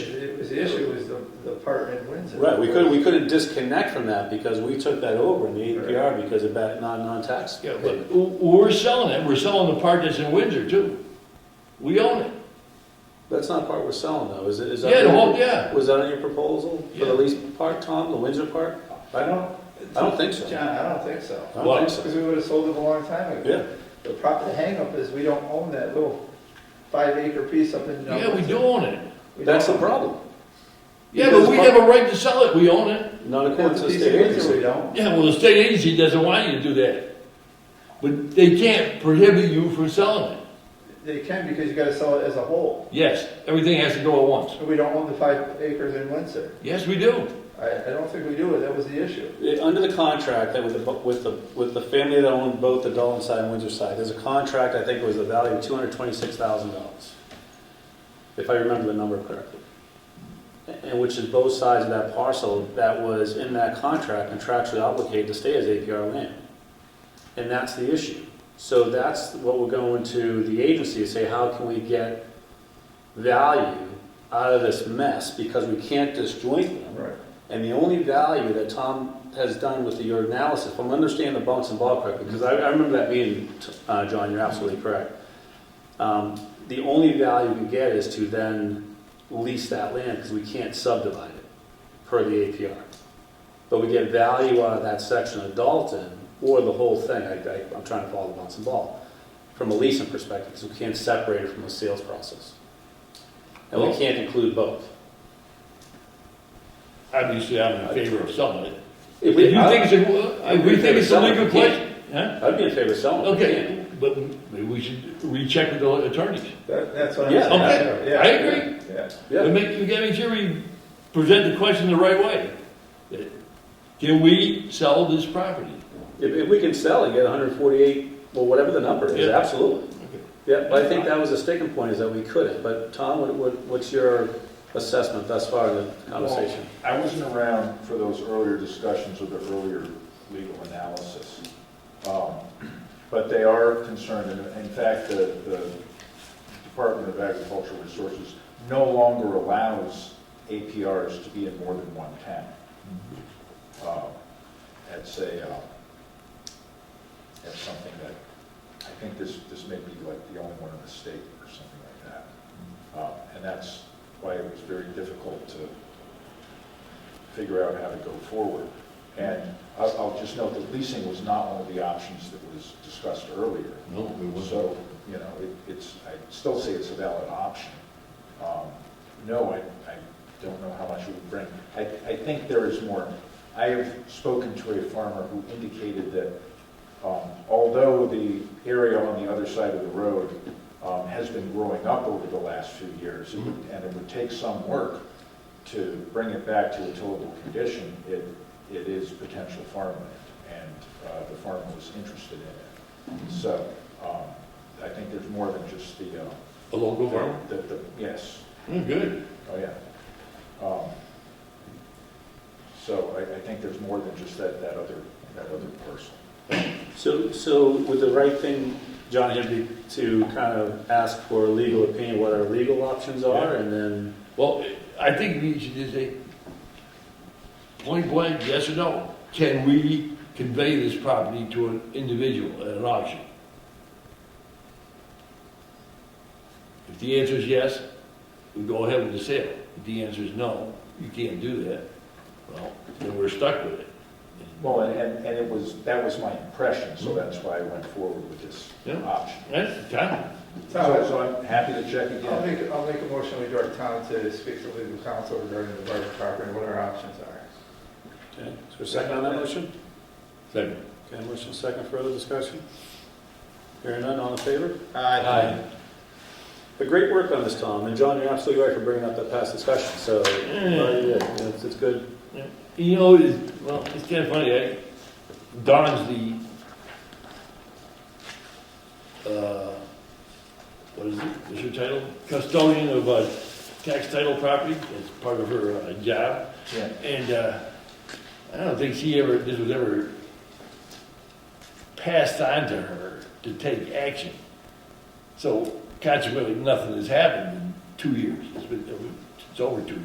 department wins it. Right, we could, we couldn't disconnect from that because we took that over in the APR because of that non, non-tax. Yeah, but w- we're selling it, we're selling the part that's in Windsor too. We own it. That's not part we're selling though, is it? Is that Yeah, the your- whole, yeah. Was that on your proposal for Yeah. the lease part, Tom, the Windsor part? I don't. I don't think so. John, I don't think so. I Well, don't think Because so. we would have sold it a long time ago. Yeah, The prop, the hangup is we don't own that little five acre piece up in. Yeah, we do own it. We that's the don't. problem. Yeah, but we have a right to sell it, we own it. Not according That's to a the piece of state Windsor we agency. don't. Yeah, well, the state agency doesn't want you to do that. But they can't prohibit you from selling it. They can because you gotta sell it as a whole. Yes, everything has to go at once. We don't own the five acres in Windsor. Yes, we do. I, I don't think we do it. That was the issue. It- uh, Under the contract, that with the, with the, with the family that owned both the Dalton side and Windsor side, there's a contract, I think it was the value of two hundred twenty-six thousand dollars. If I remember the number correctly. And which is both sides of that parcel that was in that contract contractually obligated to stay as APR land. And that's the issue. So that's what we're going to the agency to say, how can we get value out of this mess? Because we can't disjoint them. Right. And the only value that Tom has done with your analysis, if I'm understanding the bunks and ball correctly, because I, I remember that meeting, t- uh, John, you're absolutely correct. Um, the only value you can get is to then lease that land because we can't subdivide it per the APR. But we get value out of that section of Dalton or the whole thing. I, I, I'm trying to follow the bunks and ball from a leasing perspective because we can't separate it from the sales process. And we Well- can't include both. Obviously, I'm in favor of selling it. If If we, you think I, it's a, if we think it's a legal question, huh? I'd be in favor of selling. it. We can't. Okay, but maybe we should recheck with the attorneys. That, that's what I'm Yeah. saying. Okay, Yeah. I agree. Yeah. We Yeah, make, we gotta make sure we present the question the right way. That, Can we sell this property? if, if we can sell and get hundred and forty-eight, well, whatever the number is, Yeah. absolutely. Yeah, but I think that was a sticking point, is that we couldn't, but Tom, what, what, what's your assessment thus far in the conversation? I wasn't around for those earlier discussions with the earlier legal analysis. Um, But they are concerned, and in fact, the, the Department of Agricultural Resources no longer allows APRs to be in more than one town. Um, That's a, uh, that's something that, I think this, this may be like the only one in the state or something like that. Um, And that's why it was very difficult to figure out how to go forward. And I'll, I'll just note that leasing was not one of the options that was discussed earlier. No, we So, you know, it, it's, I still say it's a valid option. Um, No, I, I don't know how much it would bring. I, I think there is more. I have spoken to a farmer who indicated that um, although the area on the other side of the road um, has been growing up over the last few years, it would- and it would take some work to bring it back to a tillable condition, it, it is potential farmland, and uh, the farmer was interested in it. So um, I think there's more than just the, uh, A local farm? the, the, yes, Mm, Good. oh, yeah. Um, So I, I think there's more than just that, that other, that other parcel. So, so would the right thing, John, here be to kind of ask for a legal opinion, what our legal options are, and then, Well, I think we should just say, point blank, yes or no? Can we convey this property to an individual at an auction? If the answer is yes, we go ahead with the sale. If the answer is no, you can't do that, well, then we're stuck with it. Well, and, and and it was, that was my impression, so that's why I went forward with this Yeah. option. That's the time. So, Tom, so I'm happy to check I'll again. make, I'll make a motion we direct Tom to speak to legal counsel regarding the Barton property and what our options are. okay, is there a second on that motion? Second. Okay, motion second, further discussion? Hearing none, all in favor? Aye. But great work on this, Tom, and John, you're absolutely right for bringing up that past discussion, so, well, you did. Yeah, it's, it's good, You know, it's, well, it's kind of funny, I, Don's the, uh, what is it, what's your title? Custodian of, uh, tax title property, it's part of her, uh, job, Yeah. and, uh, I don't think she ever, this was ever passed on to her to take action. So consequently, nothing has happened in two years, it's been, it's over two